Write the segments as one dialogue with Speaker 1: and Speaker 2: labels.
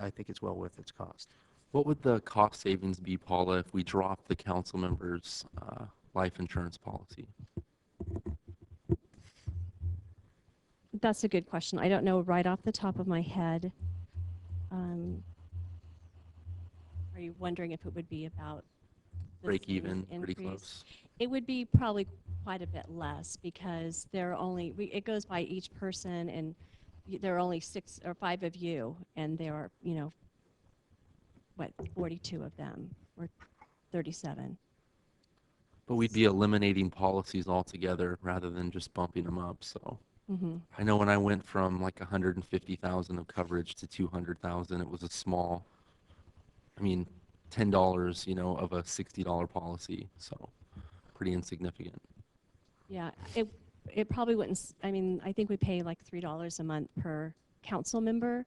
Speaker 1: I think it's well worth its cost.
Speaker 2: What would the cost savings be, Paula, if we dropped the council members' uh, life insurance policy?
Speaker 3: That's a good question. I don't know right off the top of my head. Um, are you wondering if it would be about the
Speaker 2: Break
Speaker 3: same
Speaker 2: even, pretty
Speaker 3: increase?
Speaker 2: close.
Speaker 3: It would be probably quite a bit less because there are only we, it goes by each person, and y- there are only six or five of you, and there are you know what forty-two of them or thirty-seven.
Speaker 2: But we'd be eliminating policies altogether rather than just bumping them up, so.
Speaker 3: Mm-hmm.
Speaker 2: I know when I went from like 150,000 of coverage to 200,000, it was a small, I mean, $10, you know, of a $60 policy, so pretty insignificant.
Speaker 3: Yeah, it, it probably wouldn't, s- I mean, I think we pay like three dollars a month per council member.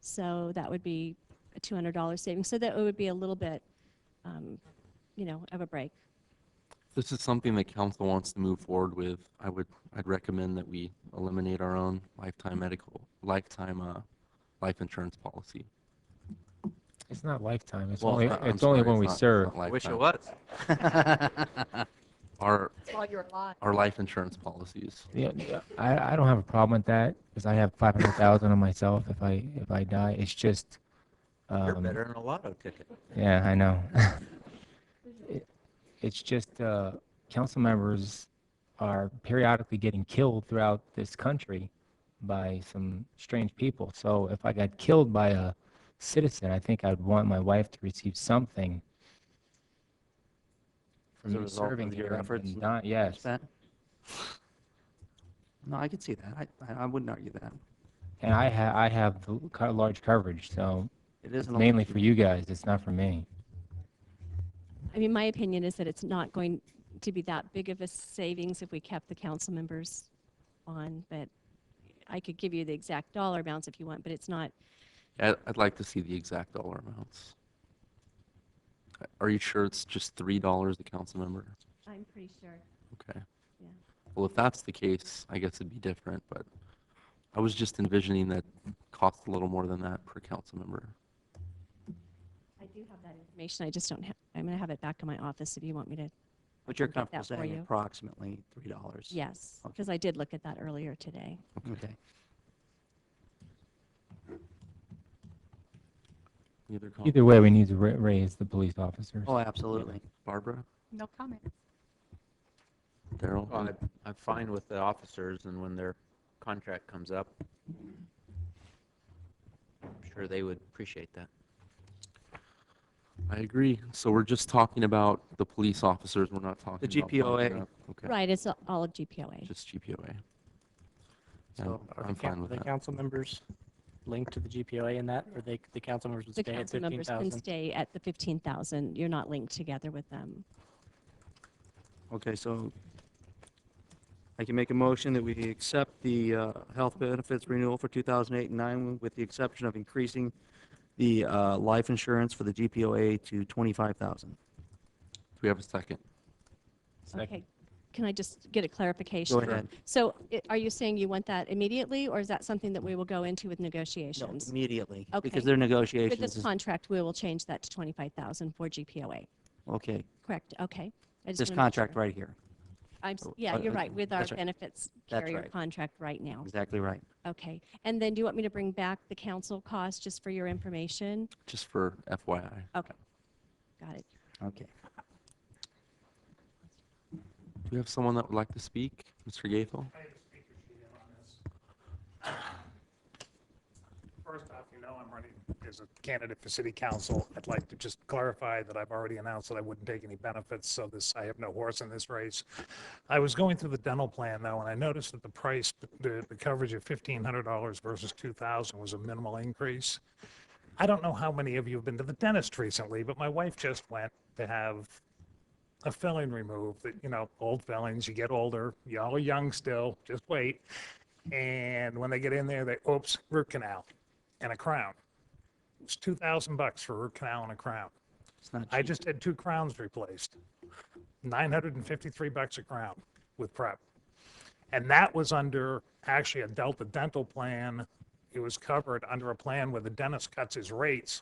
Speaker 3: So that would be a two hundred dollar savings. So that would be a little bit, um, you know, of a break.
Speaker 2: If this is something that council wants to move forward with, I would, I'd recommend that we eliminate our own lifetime medical, lifetime, uh, life insurance policy.
Speaker 4: It's not lifetime. It's
Speaker 2: Well,
Speaker 4: only
Speaker 2: not- I'm
Speaker 4: it's only
Speaker 2: sorry,
Speaker 4: when we
Speaker 2: not- it's
Speaker 4: serve.
Speaker 2: not lifetime.
Speaker 1: was.
Speaker 2: Our,
Speaker 5: while you're alive.
Speaker 2: our life insurance policies.
Speaker 4: Yeah, yeah, I, I don't have a problem with that because I have five hundred thousand on myself if I if I die. It's just
Speaker 1: You're
Speaker 4: um,
Speaker 1: better than a lotto ticket.
Speaker 4: Yeah, I know. It- It's just, uh, council members are periodically getting killed throughout this country by some strange people. So if I got killed by a citizen, I think I'd want my wife to receive something for
Speaker 1: As a
Speaker 4: me
Speaker 1: result of
Speaker 4: serving
Speaker 1: your
Speaker 4: here and-
Speaker 1: efforts
Speaker 4: and
Speaker 1: with
Speaker 4: not, yes.
Speaker 1: That- No, I could see that. I, I- I wouldn't argue that.
Speaker 4: And I ha, I have the l- co- large coverage, so
Speaker 1: It is an
Speaker 4: mainly
Speaker 1: election.
Speaker 4: for you guys, it's not for me.
Speaker 3: I mean, my opinion is that it's not going to be that big of a savings if we kept the council members on, but I could give you the exact dollar amounts if you want, but it's not,
Speaker 2: I'd, I'd like to see the exact dollar amounts. Uh, Are you sure it's just three dollars a council member?
Speaker 3: I'm pretty sure.
Speaker 2: Okay.
Speaker 3: Yeah.
Speaker 2: Well, if that's the case, I guess it'd be different, but I was just envisioning that costs a little more than that per council member.
Speaker 3: I do have that information. I just don't have, I'm going to have it back in my office if you want me to
Speaker 1: But you're
Speaker 3: I'll get
Speaker 1: comfortable
Speaker 3: that for
Speaker 1: saying
Speaker 3: you.
Speaker 1: approximately three dollars?
Speaker 3: Yes,
Speaker 1: Okay.
Speaker 3: because I did look at that earlier today.
Speaker 1: Okay.
Speaker 2: Any other comments?
Speaker 4: Either way, we need to ra- raise the police officers.
Speaker 1: Oh, absolutely.
Speaker 2: Barbara,
Speaker 5: No comment.
Speaker 2: Daryl?
Speaker 6: Well, I- I'm fine with the officers and when their contract comes up, I'm sure they would appreciate that.
Speaker 2: I agree. So we're just talking about the police officers. We're not talking about. buying
Speaker 1: GPOA.
Speaker 2: it up. Okay,
Speaker 3: Right, it's a- all of GPOA.
Speaker 2: just GPOA. Yeah,
Speaker 7: So are
Speaker 2: I'm
Speaker 7: the coun-
Speaker 2: fine with
Speaker 7: The
Speaker 2: that.
Speaker 7: council members linked to the GPOA in that, or they, the council members would
Speaker 3: The
Speaker 7: stay at
Speaker 3: council members can
Speaker 7: 15,000?
Speaker 3: stay at the 15,000. You're not linked together with them.
Speaker 1: Okay, so I can make a motion that we accept the uh, health benefits renewal for 2008 and 9 with the exception of increasing the uh, life insurance for the GPOA to 25,000.
Speaker 2: Do we have a second?
Speaker 3: Okay, can I just get a clarification?
Speaker 1: Go ahead.
Speaker 3: So i- are you saying you want that immediately, or is that something that we will go into with
Speaker 1: No,
Speaker 3: negotiations?
Speaker 1: Immediately,
Speaker 3: Okay.
Speaker 1: because their
Speaker 3: With
Speaker 1: negotiations
Speaker 3: this
Speaker 1: is,
Speaker 3: contract, we will change that to 25,000 for GPOA,
Speaker 1: okay,
Speaker 3: correct? Okay. I just
Speaker 1: this
Speaker 3: wanna make
Speaker 1: contract
Speaker 3: sure.
Speaker 1: right here,
Speaker 3: I'm, s-
Speaker 1: Oh,
Speaker 3: yeah,
Speaker 1: uh,
Speaker 3: you're
Speaker 1: uh,
Speaker 3: right, with our
Speaker 1: that's right.
Speaker 3: benefits
Speaker 1: That's
Speaker 3: carrier
Speaker 1: right. Mm-hmm.
Speaker 3: contract right now.
Speaker 1: exactly right.
Speaker 3: Okay, and then do you want me to bring back the council cost just for your information?
Speaker 2: Just for FYI.
Speaker 3: Okay, got it.
Speaker 1: Okay.
Speaker 2: Do we have someone that would like to speak? Mr. Gaethel?
Speaker 8: First off, you know I'm running as a candidate for city council. I'd like to just clarify that I've already announced that I wouldn't take any benefits, so this, I have no horse in this race. I was going through the dental plan though, and I noticed that the price, the, the coverage of fifteen hundred dollars versus two thousand was a minimal increase. I don't know how many of you have been to the dentist recently, but my wife just went to have a filling removed, that, you know, old fillings, you get older, y'all are young still, just wait. And when they get in there, they, oops, root canal and a crown. It's two thousand bucks for a root canal and a crown.
Speaker 1: It's not
Speaker 8: I
Speaker 1: cheap.
Speaker 8: just had two crowns replaced. Nine hundred and fifty-three bucks a crown with prep. And that was under actually a Delta dental plan it was covered under a plan where the dentist cuts his rates